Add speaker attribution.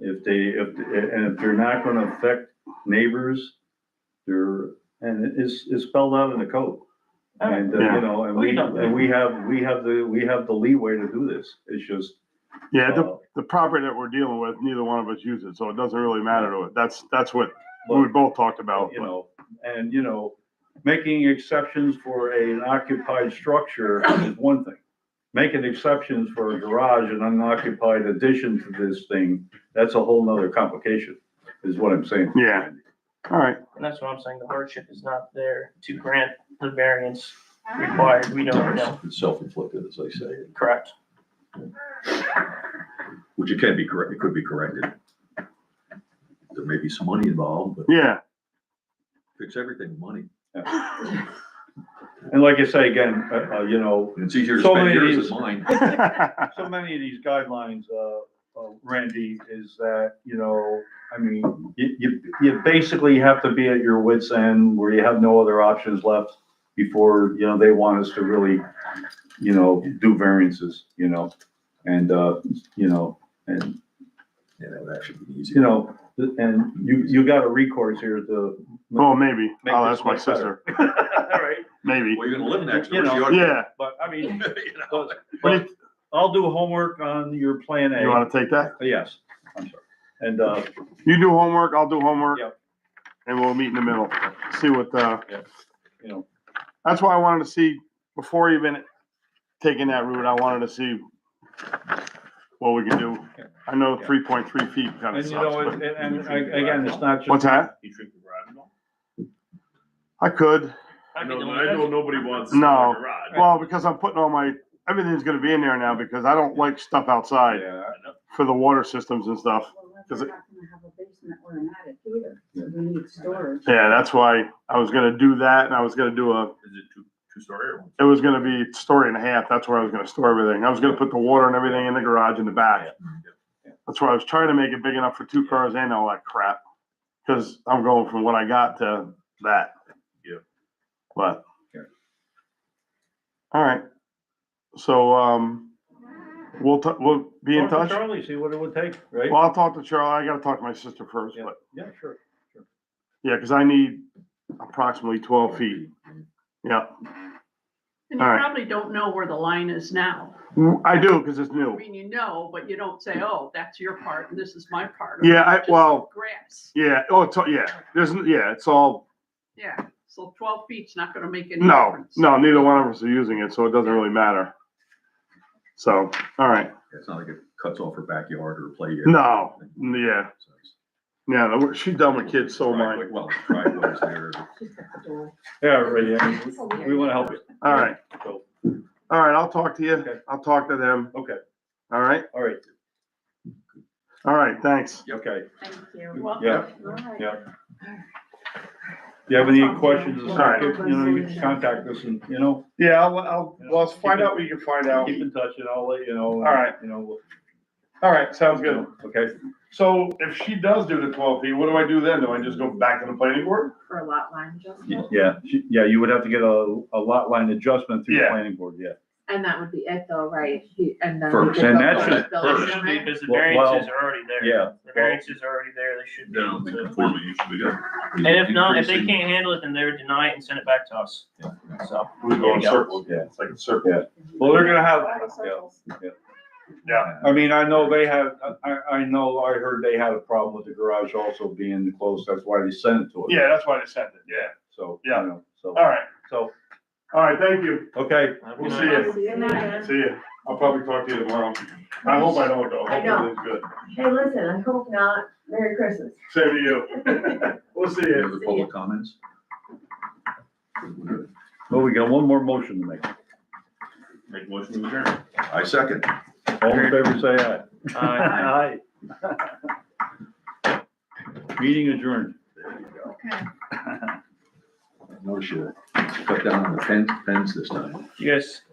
Speaker 1: if they, if, and if they're not gonna affect neighbors, they're, and it's, it's spelled out in the code. And, uh, you know, and we, and we have, we have the, we have the leeway to do this, it's just.
Speaker 2: Yeah, the,
Speaker 1: uh,
Speaker 2: the property that we're dealing with, neither one of us use it, so it doesn't really matter to it. That's, that's what we
Speaker 1: but-
Speaker 2: both talked about.
Speaker 1: you know, and, you know, making exceptions for an occupied structure is one thing. Making exceptions for a garage and unoccupied addition to this thing, that's a whole nother complication, is what I'm saying.
Speaker 2: Yeah. All right,
Speaker 3: And that's what I'm saying, the hardship is not there to grant the variance required, we don't know,
Speaker 4: It's self-inflicted, as I say,
Speaker 3: correct?
Speaker 4: which it can be correct, it could be corrected. There may be some money involved, but
Speaker 2: yeah,
Speaker 4: fix everything with money.
Speaker 1: And like I say again, uh, uh, you know,
Speaker 4: And it's easier to
Speaker 1: So
Speaker 4: spend
Speaker 1: many
Speaker 4: yours
Speaker 1: reasons.
Speaker 4: than mine.
Speaker 2: yeah,
Speaker 1: so many of these guidelines, uh, uh, Randy, is that, you know, I mean, you, you, you basically have to be at your wits' end where you have no other options left before, you know, they want us to really, you know, do variances, you know? And, uh, you know, and,
Speaker 4: Yeah, that would actually be
Speaker 1: you
Speaker 4: easier.
Speaker 1: know, and you, you got a recourse here to.
Speaker 2: well, maybe.
Speaker 1: Make
Speaker 2: I'll
Speaker 1: this
Speaker 2: ask my
Speaker 1: work better.
Speaker 2: sister,
Speaker 1: All right,
Speaker 2: maybe.
Speaker 4: Well, you're gonna live next
Speaker 1: You
Speaker 4: door, so you
Speaker 1: know,
Speaker 4: ought to-
Speaker 2: Yeah,
Speaker 1: but I mean,
Speaker 4: you know.
Speaker 1: but- but I'll do homework on your plan
Speaker 2: you
Speaker 1: A.
Speaker 2: wanna take that?
Speaker 1: Yes, I'm sorry. And, uh,
Speaker 2: You do homework, I'll do homework.
Speaker 1: Yep.
Speaker 2: And we'll meet in the middle, see what, uh,
Speaker 1: you know,
Speaker 2: that's why I wanted to see, before even taking that route, I wanted to see what we can do. I know
Speaker 1: Yeah.
Speaker 2: three point three feet kinda
Speaker 1: And you
Speaker 2: sucks,
Speaker 1: know, and,
Speaker 2: but
Speaker 1: and and I- again, it's not just.
Speaker 2: What's that?
Speaker 1: You treat the garage at all?
Speaker 2: I could.
Speaker 3: I
Speaker 5: know,
Speaker 3: mean,
Speaker 5: I know nobody wants.
Speaker 2: No.
Speaker 5: a garage.
Speaker 2: Well, because I'm putting all my, everything's gonna be in there now because I don't like stuff outside
Speaker 1: Yeah,
Speaker 2: for the water systems and stuff.
Speaker 6: Well, we're
Speaker 2: 'Cause
Speaker 6: not
Speaker 2: it-
Speaker 6: gonna have a basement or an attic either, so we need storage.
Speaker 2: Yeah, that's why I was gonna do that and I was gonna do a,
Speaker 5: Is it two, two story or one?
Speaker 2: it was gonna be a story and a half. That's where I was gonna store everything. I was gonna put the water and everything in the garage in the back. That's why I was trying to make it big enough for two cars and all that crap. Cause I'm going from what I got to that.
Speaker 5: Yeah.
Speaker 2: But.
Speaker 1: Yeah.
Speaker 2: All right. So, um, we'll, t- we'll be in
Speaker 1: Talk to
Speaker 2: touch.
Speaker 1: Charlie, see what it would take, right?
Speaker 2: Well, I'll talk to Charlie. I gotta talk to my sister first,
Speaker 1: Yeah,
Speaker 2: but,
Speaker 1: yeah, sure.
Speaker 2: yeah, cause I need approximately twelve feet. Yeah,
Speaker 7: And you
Speaker 2: All right.
Speaker 7: probably don't know where the line is now.
Speaker 2: I do, cause it's
Speaker 7: I
Speaker 2: new.
Speaker 7: mean, you know, but you don't say, oh, that's your part and this is my part. or
Speaker 2: Yeah, I,
Speaker 7: just
Speaker 2: well,
Speaker 7: Grass,
Speaker 2: yeah, oh, it's, all- yeah, there's, n- yeah, it's all,
Speaker 7: yeah. So twelve feet's not gonna make any
Speaker 2: no,
Speaker 7: difference.
Speaker 2: no, neither one of us are using it, so it doesn't really matter. So, all right,
Speaker 4: It's not like it cuts off her backyard or play area.
Speaker 2: no, yeah,
Speaker 4: So it's-
Speaker 2: yeah, no, we're- she's done with kids, so am I.
Speaker 4: Driveway- Well, driveway's there.
Speaker 6: She's got the door.
Speaker 1: Yeah, really, I mean, we wanna help you,
Speaker 2: All right,
Speaker 1: so,
Speaker 2: all right, I'll talk to you.
Speaker 1: Okay.
Speaker 2: I'll talk to them.
Speaker 1: okay,
Speaker 2: All right,
Speaker 1: all right,
Speaker 2: all right, thanks.
Speaker 1: okay.
Speaker 6: Thank you.
Speaker 7: Well,
Speaker 1: Yeah,
Speaker 6: All right.
Speaker 1: yeah. You have any questions,
Speaker 2: All
Speaker 1: just
Speaker 2: right.
Speaker 1: contact- you know, you can contact us and, you know,
Speaker 2: Yeah, I'll, I'll,
Speaker 1: well, let's find out
Speaker 2: what you can find
Speaker 1: keep in touch and I'll let you know. All
Speaker 2: right.
Speaker 1: You know. we'll-
Speaker 2: All right, sounds good.
Speaker 1: Okay,
Speaker 2: So if she does do the twelve feet, what do I do then? Do I just go back to the planning board?
Speaker 6: For a lot line adjustment,
Speaker 1: yeah, she- yeah, you would have to get a, a lot line adjustment through the
Speaker 2: Yeah.
Speaker 1: planning board, yeah.
Speaker 6: and that would be it though, right? He- And then.
Speaker 4: First.
Speaker 1: And that should-
Speaker 5: first.
Speaker 3: Because the
Speaker 1: Well,
Speaker 3: variances are already there.
Speaker 1: yeah.
Speaker 3: The variances are already there, they should be able
Speaker 5: Down
Speaker 3: to.
Speaker 5: conforming, you should be good.
Speaker 3: And if not, if they
Speaker 4: Increasing-
Speaker 3: can't handle it, then they would deny it and send it back to us, so.
Speaker 2: We go in
Speaker 3: Yeah.
Speaker 2: circles,
Speaker 1: Yeah.
Speaker 2: it's like a circle.
Speaker 1: Well, they're gonna have, yeah.
Speaker 2: Yeah,
Speaker 1: I mean, I know they had, I, I know, I heard they had a problem with the garage also being closed, that's why they sent it to us.
Speaker 2: yeah, that's why they sent it, yeah.
Speaker 1: So, you
Speaker 2: Yeah.
Speaker 1: know, so,
Speaker 2: All right,
Speaker 1: so,
Speaker 2: all right, thank you.
Speaker 1: okay,
Speaker 2: We'll see you. See you. I'll probably talk to you tomorrow. I hope I don't go.
Speaker 8: I know.
Speaker 2: Hopefully it's good.
Speaker 8: Hey, listen, I hope not. Merry Christmas.
Speaker 2: Same to you. We'll see
Speaker 4: Any
Speaker 2: you.
Speaker 4: other public comments?
Speaker 1: well, we got one more motion to make.
Speaker 5: Make motion to adjourn.
Speaker 4: I second.
Speaker 1: All in favor, say aye.
Speaker 3: Aye.
Speaker 1: Meeting adjourned.
Speaker 7: Okay.
Speaker 4: Notice you cut down on the pen, pens this time.
Speaker 3: You guys